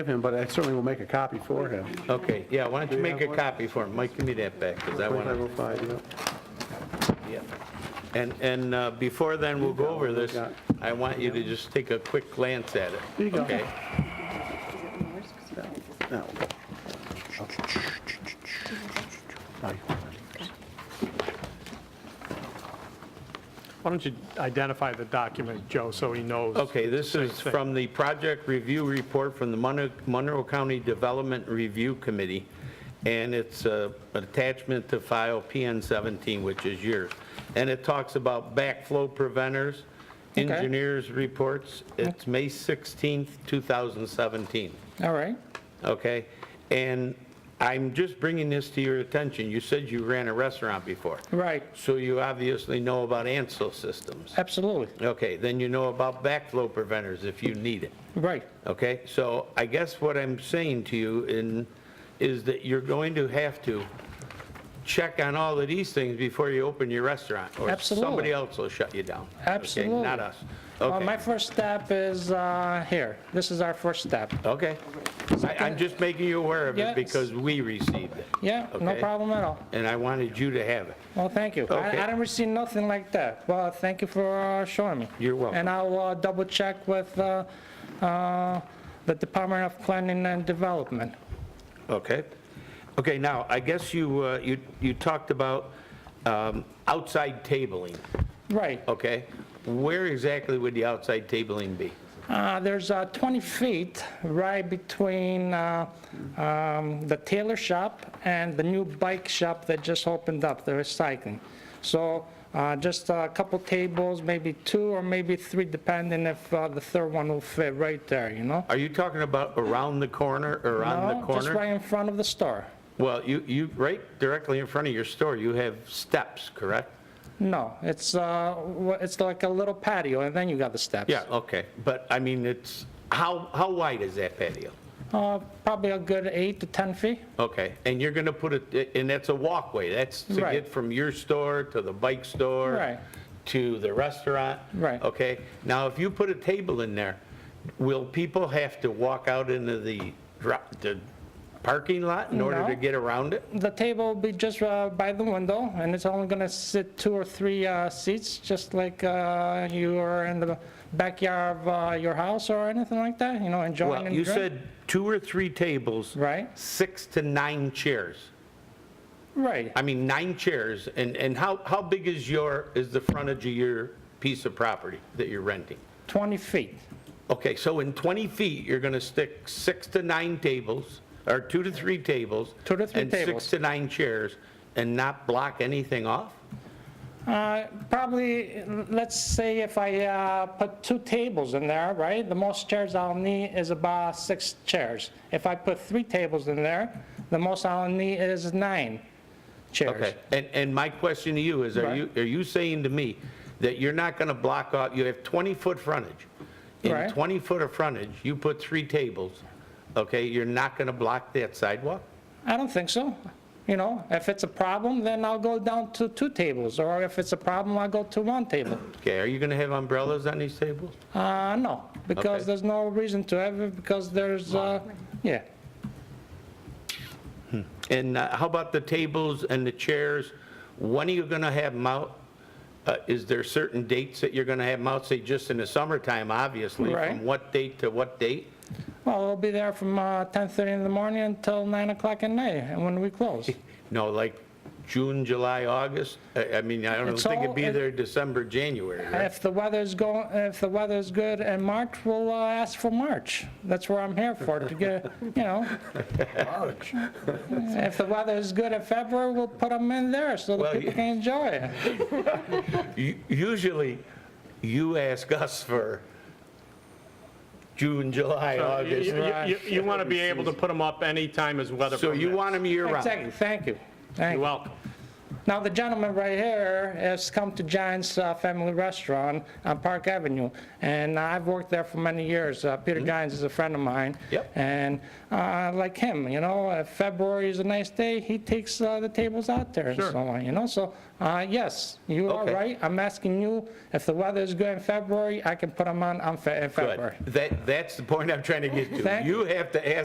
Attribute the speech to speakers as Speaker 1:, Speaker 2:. Speaker 1: give him, but I certainly will make a copy for him.
Speaker 2: Okay, yeah, why don't you
Speaker 1: Do we
Speaker 2: make a
Speaker 1: have one?
Speaker 2: copy for him? Mike, give me that back, because I want to,
Speaker 1: 2505,
Speaker 2: yeah. And, and uh, before then, we'll go over this.
Speaker 1: got-
Speaker 2: I want you to just take a quick glance at it.
Speaker 1: There you go.
Speaker 2: Okay,
Speaker 1: yeah. Now we'll go. Aye.
Speaker 3: Why don't you identify the document, Joe, so he knows?
Speaker 2: Okay, this is from the project review report from the Mon- Monroe County Development Review Committee, and it's uh, an attachment to file PN 17, which is yours. And it talks about backflow preventers, engineers' reports. It's May 16th, 2017.
Speaker 4: All right.
Speaker 2: okay? And I'm just bringing this to your attention. You said you ran a restaurant before.
Speaker 4: Right.
Speaker 2: So you obviously know about ANSO systems.
Speaker 4: Absolutely.
Speaker 2: Okay, then you know about backflow preventers if you need it,
Speaker 4: Right.
Speaker 2: okay? So I guess what I'm saying to you in, is that you're going to have to check on all of these things before you open your restaurant.
Speaker 4: Absolutely.
Speaker 2: Or somebody else will shut you down. okay?
Speaker 4: Absolutely.
Speaker 2: Not us.
Speaker 4: Well, my
Speaker 2: Okay,
Speaker 4: first step is uh, here. This is our first step.
Speaker 2: okay. I- I'm just making you aware of
Speaker 4: Yes.
Speaker 2: it because we received it.
Speaker 4: Yeah, no
Speaker 2: Okay.
Speaker 4: problem at all.
Speaker 2: and I wanted you to have it.
Speaker 4: Well, thank you. I
Speaker 2: Okay.
Speaker 4: I didn't receive nothing like that. Well, thank you for uh, showing me.
Speaker 2: You're welcome.
Speaker 4: And I'll uh, double check with uh, uh, the Department of Planning and Development.
Speaker 2: Okay. Okay, now, I guess you, uh, you, you talked about um, outside tabling,
Speaker 4: Right.
Speaker 2: okay? Where exactly would the outside tabling be?
Speaker 4: Uh, There's uh, 20 feet right between uh, um, the tailor shop and the new bike shop that just opened up, the recycling. So uh, just a couple tables, maybe two or maybe three, depending if uh, the third one will fit right there, you know?
Speaker 2: Are you talking about around the corner, around the
Speaker 4: No, Just right
Speaker 2: corner?
Speaker 4: in front of the store.
Speaker 2: Well, you, you, right directly in front of your store, you have steps, correct?
Speaker 4: No, it's, uh, wha- it's like a little patio, and then you got the steps.
Speaker 2: Yeah, okay, but I mean, it's, how, how wide is that patio?
Speaker 4: Uh, Probably a good eight to 10 feet.
Speaker 2: Okay, and you're going to put it, and that's a walkway, that's to
Speaker 4: Right.
Speaker 2: get from your store to the bike store?
Speaker 4: Right.
Speaker 2: To the restaurant?
Speaker 4: Right.
Speaker 2: Okay, now if you put a table in there, will people have to walk out into the, dr- the parking lot in order
Speaker 4: No.
Speaker 2: to get around it?
Speaker 4: The table will be just uh, by the window, and it's only going to sit two or three uh, seats, just like uh, you are in the backyard of uh, your house or anything like that, you know, enjoying and
Speaker 2: Well, you
Speaker 4: drink.
Speaker 2: said two or three tables.
Speaker 4: Right.
Speaker 2: Six to nine chairs.
Speaker 4: Right.
Speaker 2: I mean, nine chairs, and, and how, how big is your, is the frontage of your piece of property that you're renting?
Speaker 4: 20 feet.
Speaker 2: Okay, so in 20 feet, you're going to stick six to nine tables, or two to three tables.
Speaker 4: Two to three
Speaker 2: And
Speaker 4: tables.
Speaker 2: six to nine chairs, and not block anything off?
Speaker 4: Uh, Probably, let's say if I uh, put two tables in there, right? The most chairs I'll need is about six chairs. If I put three tables in there, the most I'll need is nine chairs.
Speaker 2: Okay, and, and my question to you is, are
Speaker 4: Right.
Speaker 2: you, are you saying to me that you're not going to block off, you have 20-foot frontage?
Speaker 4: Right.
Speaker 2: In 20-foot of frontage, you put three tables, okay, you're not going to block that sidewalk?
Speaker 4: I don't think so. You know, if it's a problem, then I'll go down to two tables, or if it's a problem, I'll go to one table.
Speaker 2: Okay, are you going to have umbrellas on these tables?
Speaker 4: Uh, no,
Speaker 2: Okay.
Speaker 4: because there's no reason to have it, because there's, uh, yeah.
Speaker 2: And uh, how about the tables and the chairs? When are you going to have them out? Uh, Is there certain dates that you're going to have them out? Say, just in the summertime, obviously?
Speaker 4: Right.
Speaker 2: From what date to what date?
Speaker 4: Well, we'll be there from uh, 10:30 in the morning until 9 o'clock at night, and when we close.
Speaker 2: No, like June, July, August? I I mean, I don't
Speaker 4: It's
Speaker 2: think
Speaker 4: all-
Speaker 2: it'd be
Speaker 4: it-
Speaker 2: there December, January, right?
Speaker 4: If the weather's go, if the weather's good in March, we'll uh, ask for March. That's what I'm here for, to get, you know. March. If the weather's good in February, we'll put them in there so
Speaker 2: Well,
Speaker 4: that people
Speaker 2: you-
Speaker 4: can enjoy it.
Speaker 2: U- Usually, you ask us for June, July,
Speaker 3: So you-
Speaker 2: August.
Speaker 3: You, want to be able to put them up anytime as weather
Speaker 2: So you
Speaker 3: permits.
Speaker 2: want them year-round?
Speaker 4: Exactly, thank you. Thank
Speaker 3: You're
Speaker 4: you.
Speaker 3: welcome.
Speaker 4: Now, the gentleman right here has come to John's uh, Family Restaurant on Park Avenue, and I've worked there for many years. Uh, Peter Johns is a friend of mine.
Speaker 2: Yep.
Speaker 4: And uh, like him, you know, if February is a nice day, he takes uh, the tables out there and
Speaker 3: Sure.
Speaker 4: so on, you know? So, uh, yes, you are
Speaker 2: Okay.
Speaker 4: right. I'm asking you, if the weather is good in February, I can put them on on Fe- in
Speaker 2: Good.
Speaker 4: February.
Speaker 2: That, that's the point I'm trying to get to.
Speaker 4: Thank-
Speaker 2: You have to ask